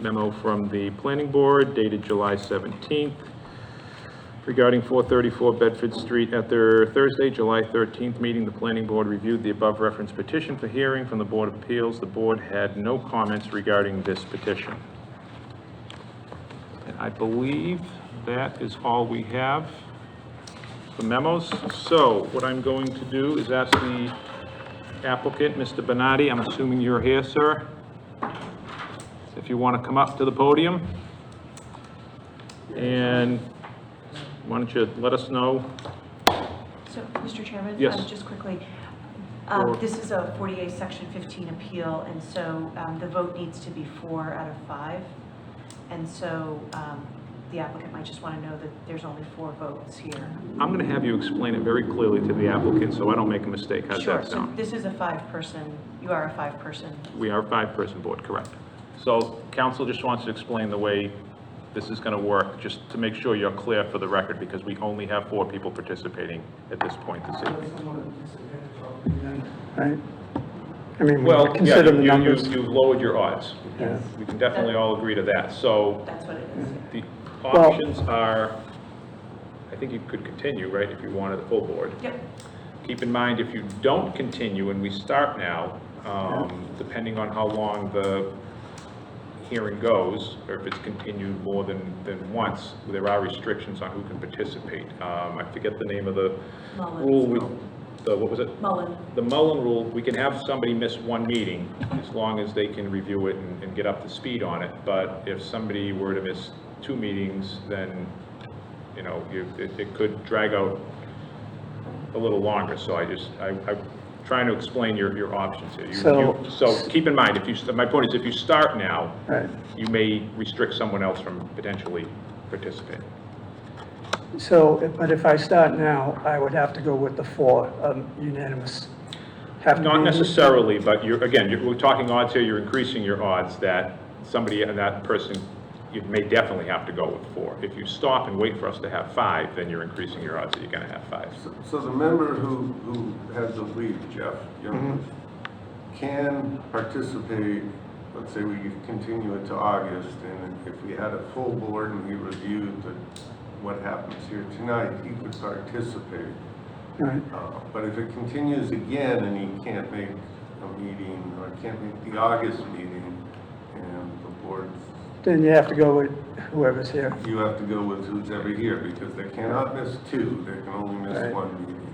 memo from the planning board dated July 17th regarding 434 Bedford Street. At their Thursday, July 13th meeting, the planning board reviewed the above referenced petition for hearing from the Board of Appeals. The board had no comments regarding this petition. And I believe that is all we have for memos. So what I'm going to do is ask the applicant, Mr. Benatti, I'm assuming you're here, sir? If you want to come up to the podium. And why don't you let us know? So, Mr. Chairman? Yes. um, Just quickly, um, Or- this is a 48, Section 15 appeal, and so um, the vote needs to be four out of five. And so um, the applicant might just want to know that there's only four votes here. I'm going to have you explain it very clearly to the applicant, so I don't make a mistake. How's Sure, that so sound? this is a five-person, you are a five-person. We are a five-person board, correct? So council just wants to explain the way this is going to work, just to make sure you're clear for the record, because we only have four people participating at this point this evening. right? I mean, we Well, yeah, consider the you, you- numbers. you've lowered your odds. Yeah. We can definitely all agree to that. So That's what it is. the options are, I think you could continue, right, if you wanted the full board. Yep, Keep in mind, if you don't continue and we start now, um, depending on how long the hearing goes, or if it's continued more than, than once, there are restrictions on who can participate. Um, I forget the name of the Mullins. rule with, the, what was it? Mullen, The Mullen rule, we can have somebody miss one meeting as long as they can review it and, and get up to speed on it. But if somebody were to miss two meetings, then, you know, you- it, it could drag out a little longer. So I just, I, I'm trying to explain your, your options here. You- So- you- So keep in mind, if you, st- my point is if you start now, Right. you may restrict someone else from potentially participating. So, but if I start now, I would have to go with the four um, unanimous. Have to Not be- necessarily, but you're, again, you're, we're talking odds here, you're increasing your odds that somebody, that person, you may definitely have to go with four. If you stop and wait for us to have five, then you're increasing your odds that you're gonna have five. So the member who, who has to leave, Jeff Youngman, Mm-hmm. can participate, let's say we continue it to August, and if we had a full board and we reviewed the, what happens here tonight, he could participate. Right, Uh, But if it continues again and he can't make a meeting, or can't make the August meeting, and the board, then you have to go with whoever's here. you have to go with who's ever here, because they cannot miss two, they can only miss Right. one meeting.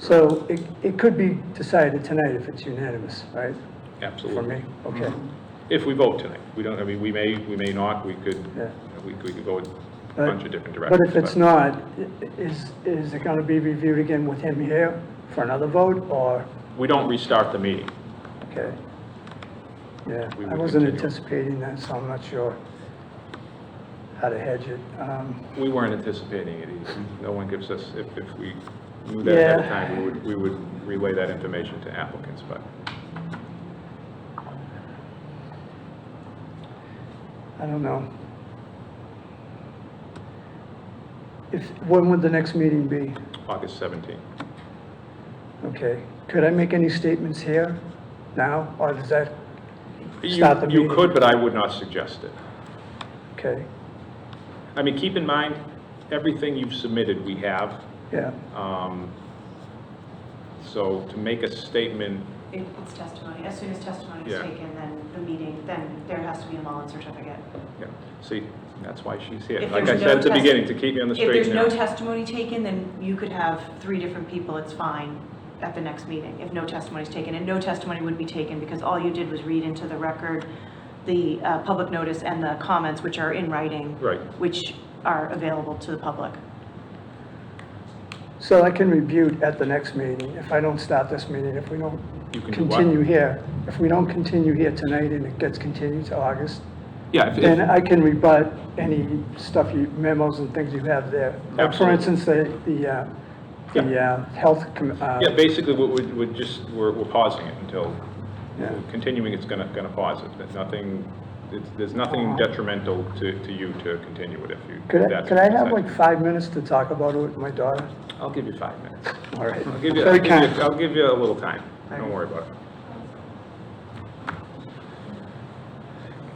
So it, it could be decided tonight if it's unanimous, right? For Absolutely. Mm-hmm. me, okay, If we vote tonight, we don't, I mean, we may, we may not, we could, yeah. we we could go in a But- bunch of different But directions. if it's not, i- is, is it gonna be reviewed again with him here for another vote, or, We don't restart the meeting. okay? Yeah, We I would wasn't continue. anticipating that, so I'm not sure how to hedge it. Um, We weren't anticipating it either. No one gives us, if, if we knew that ahead of Yeah. time, we would, we would relay that information to applicants, but I don't know. If, when would the next meeting be? August 17th. Okay, could I make any statements here now, or does that, You- Start the You meeting. could, but I would not suggest it. okay, I mean, keep in mind, everything you've submitted, we have. yeah, Um, So to make a statement, It- it's testimony. As soon as testimony Yeah. is taken, then the meeting, then there has to be a Mullen certificate. yeah, see, that's why she's here. If Like I there's said no at the test- beginning, to keep me on the If straight there's and narrow. no testimony taken, then you could have three different people, it's fine, at the next meeting, if no testimony is taken. And no testimony would be taken, because all you did was read into the record the uh, public notice and the comments, which are in writing. Right. Which are available to the public. so I can review it at the next meeting, if I don't start this meeting, if we don't You can do what? continue here, if we don't continue here tonight and it gets continued to August, Yeah, if- then uh, if- I can rebut any stuff you, memos and things you have there. Like, For Absolutely. instance, the, the, uh, the, uh, health, com- uh, yeah, basically, we- we- we're just, we're we're pausing it until, Yeah. continuing, it's gonna, gonna pause it. There's nothing, it's- there's nothing detrimental to, to you to continue it if you. could I, that's could I have what you like five minutes to talk about it with my daughter? decide. I'll give you five minutes. All right. I'll give you, I'll Very give you- kind. I'll give you a little time. Don't worry about it.